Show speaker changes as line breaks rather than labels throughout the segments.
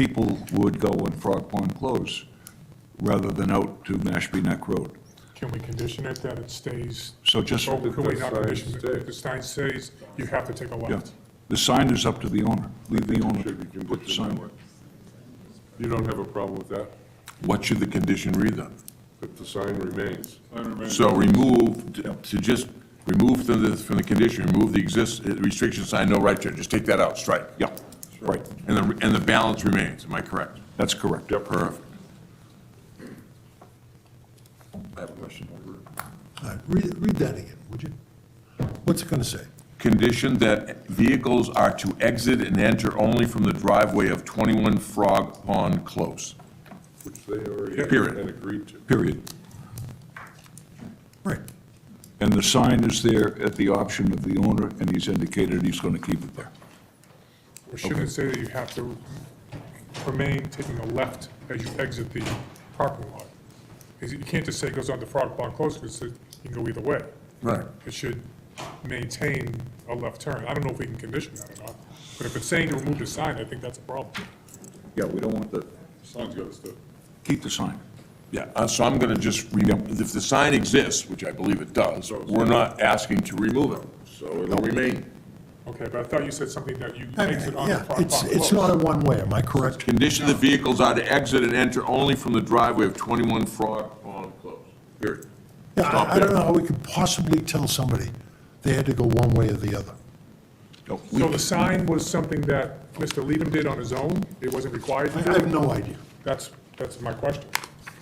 people would go when Frog Pond closed, rather than out to Mashpee Neck Road.
Can we condition it that it stays?
So just,
Oh, can we
the
not
sign
condition it?
stays.
The sign stays, you have to take a
yeah,
left.
the sign is up to the owner, leave the owner
Should be
to put the
conditioned that
sign.
way. You don't have a problem with that,
What should the condition read then?
that the sign remains.
So remove, to just, remove from the, from the condition, remove the exist, uh, restriction sign, no right turn, just take that out, strike.
Yeah, right,
And the, and the balance remains, am I correct?
that's correct.
Perfect.
I have a question.
All right, read, read that again, would you? What's it gonna say?
Condition that vehicles are to exit and enter only from the driveway of 21 Frog Pond Close.
Which they already
Period.
had agreed to.
Period.
Right,
And the sign is there at the option of the owner, and he's indicated he's going to keep it there.
Or shouldn't it say that you have to remain taking a left as you exit the parking lot? Because you can't just say it goes on to Frog Pond Close, because it you can go either way.
Right.
It should maintain a left turn. I don't know if we can condition that or not, but if it's saying to remove the sign, I think that's a problem.
Yeah, we don't want the,
Sign's got to stay.
keep the sign.
Yeah, uh, so I'm going to just, remove if the sign exists, which I believe it does, we're not asking to remove it, so it'll remain.
Okay, but I thought you said something that you
I mean,
exit on the
yeah,
Frog Pond
it's,
Close.
it's not a one-way, am I correct?
Condition the vehicles are to exit and enter only from the driveway of 21 Frog Pond Close, period.
Yeah,
Stop
I, I don't
there.
know how we could possibly tell somebody they had to go one way or the other.
No, we-
So the sign was something that Mr. Leadham did on his own? It wasn't required
I
to
I
do?
have no idea.
That's, that's my question.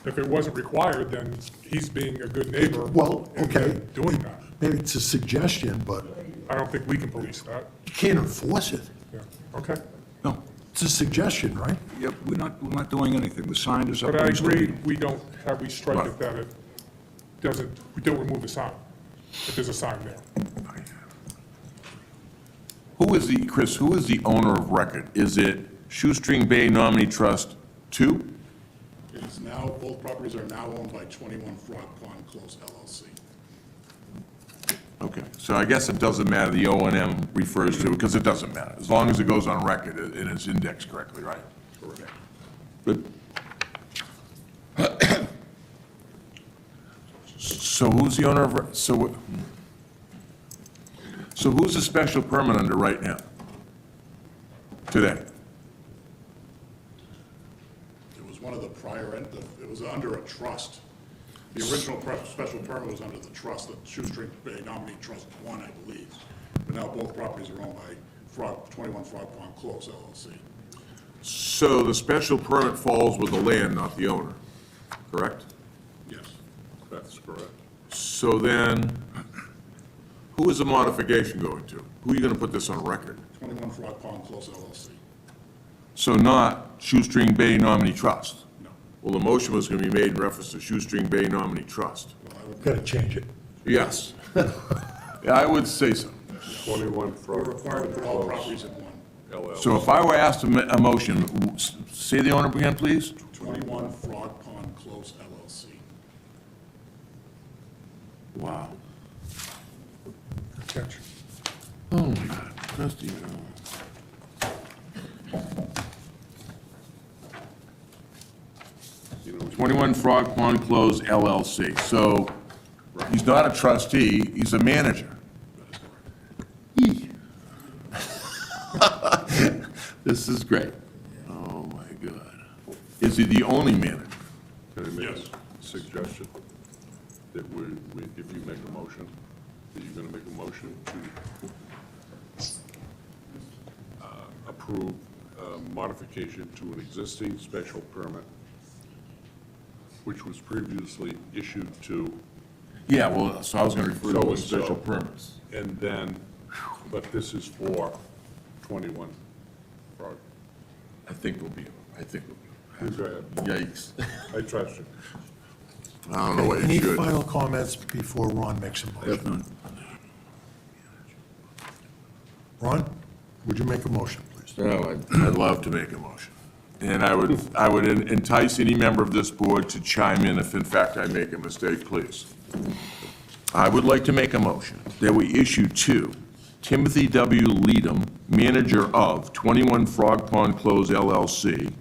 If it wasn't required, then he's being a good neighbor.
Well,
and
okay.
Doing that.
Maybe it's a suggestion, but
I don't think we can police that.
you can't enforce it.
Yeah, okay.
No,
It's a suggestion, right?
yeah, we're not, we're not doing anything, the sign is up.
But I
He's-
agree, we don't, have we strike it that it doesn't, we don't remove the sign, if there's a sign there.
Who is the, Chris, who is the owner of record? Is it Shoestring Bay Nominee Trust 2?
It is now, both properties are now owned by 21 Frog Pond Close LLC.
Okay, so I guess it doesn't matter, the O and M refers to, because it doesn't matter, as long as it goes on record and it's indexed correctly, right? Correct. Good. So who's the owner of, re- so, what- so who's the special permit under right now? Today?
It was one of the prior, en- the- it was under a trust. The original pre- special permit was under the trust, the Shoestring Bay Nominee Trust One, I believe. But now both properties are owned by Frog, 21 Frog Pond Close LLC.
So the special permit falls with the land, not the owner, correct?
Yes.
That's correct.
So then, who is the modification going to? Who are you gonna put this on record?
21 Frog Pond Close LLC.
So not Shoestring Bay Nominee Trust?
No.
Well, the motion was gonna be made in reference to Shoestring Bay Nominee Trust.
Well, I would-
Gotta change it.
Yes. Yeah, I would say so.
21
We're
Frog
required to
Pond
put all
Close,
properties in one.
LL.
So if I were asked to ma- a motion, w- s- say the owner again, please?
21 Frog Pond Close LLC.
Wow.
Good catch.
Oh, my God, trustee. uh, Twenty-one Frog Pond Close LLC, so he's not a trustee, he's a manager. Eek. This is great. Oh, my God. Is he the only manager?
Can I make a suggestion? That we, we- if you make a motion, that you're going to make a motion to uh, approve a modification to an existing special permit, which was previously issued to
Yeah, well, so I was gonna refer to it as
So-and-so.
special permits.
And then, but this is for 21 Frog.
I think we'll be, I think we'll be.
Go ahead.
Yikes.
I trust you.
I don't know what
Any
you should.
final comments before Ron makes a motion? Ron, would you make a motion, please?
Oh, I'd- I'd love to make a motion. And I would, I would entice any member of this board to chime in if in fact I make a mistake, please. I would like to make a motion that we issue to Timothy W. Leadham, manager of 21 Frog Pond Close LLC,